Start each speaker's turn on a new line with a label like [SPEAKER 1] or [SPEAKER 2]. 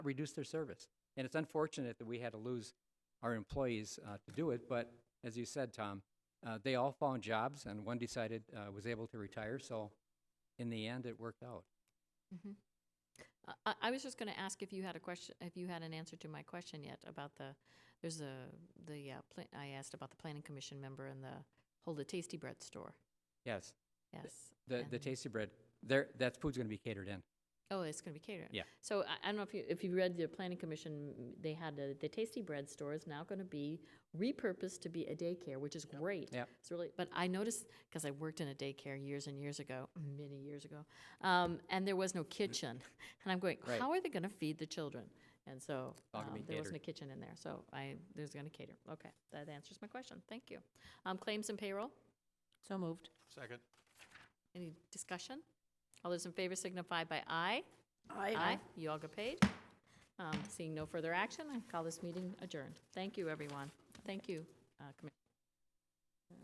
[SPEAKER 1] reduce their service. And it's unfortunate that we had to lose our employees uh, to do it, but as you said, Tom, uh, they all found jobs and one decided, uh, was able to retire, so in the end, it worked out.
[SPEAKER 2] Mhm. I- I, I was just going to ask if you had a question, if you had an answer to my question yet about the, there's a, the, uh, pla- I asked about the planning commission member and the Hold a Tasty Bread store.
[SPEAKER 1] Yes,
[SPEAKER 2] Yes.
[SPEAKER 1] the, the
[SPEAKER 2] and-
[SPEAKER 1] Tasty Bread, there, that food's gonna be catered in.
[SPEAKER 2] Oh, it's going to be catered.
[SPEAKER 1] Yeah.
[SPEAKER 2] So I, I don't know if you, if you read the planning commission, they had a, the Tasty Bread store is now going to be repurposed to be a daycare, which is great.
[SPEAKER 1] Yep.
[SPEAKER 2] It's really, but I noticed, because I worked in a daycare years and years ago, many years ago, um, and there was no kitchen. And I'm going,
[SPEAKER 1] Mm. Right.
[SPEAKER 2] how are they going to feed the children? And so,
[SPEAKER 1] all gonna
[SPEAKER 2] um,
[SPEAKER 1] be
[SPEAKER 2] there wasn't a
[SPEAKER 1] catered.
[SPEAKER 2] kitchen in there, so I, there's going to cater. Okay, that answers my question. Thank you. Um, claims and payroll?
[SPEAKER 3] So moved.
[SPEAKER 4] Second.
[SPEAKER 2] Any discussion? All those in favor signify by aye.
[SPEAKER 3] Aye.
[SPEAKER 2] You all got paid. Um, Seeing no further action, I call this meeting adjourned. Thank you, everyone. Thank you, uh, Commissioner.